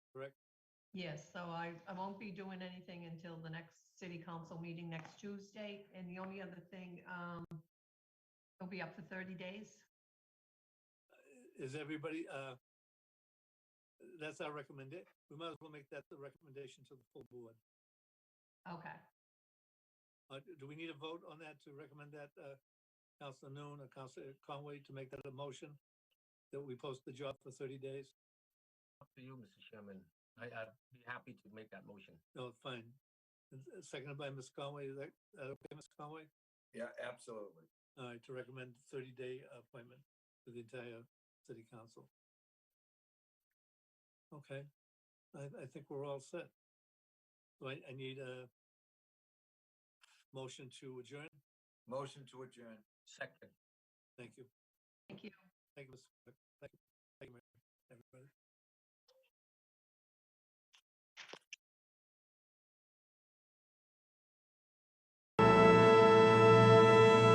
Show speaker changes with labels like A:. A: correct?
B: Yes, so I, I won't be doing anything until the next city council meeting next Tuesday. And the only other thing, um, it'll be up for 30 days.
A: Is everybody, uh, that's our recommendation. We might as well make that the recommendation to the full board.
B: Okay.
A: Uh, do- do we need a vote on that to recommend that, uh, Counselor Noon or Counselor Conway to make that a motion? That we post the job for thirty days?
C: Up to you, Mr. Chairman. I, I'd be happy to make that motion.
A: No, Oh, fine. And s- Seconded by Ms. Conway, is that, uh, okay, Ms. Conway?
D: Yeah, absolutely.
A: All right, to recommend thirty day appointment for the entire city council. Okay, I, I think we're all set. So I, I need a motion to adjourn.
D: Motion to adjourn.
C: Second.
A: Thank you.
B: Thank you.
A: Thank you, Mr. Clerk. Thank you, thank you, Mary, everybody.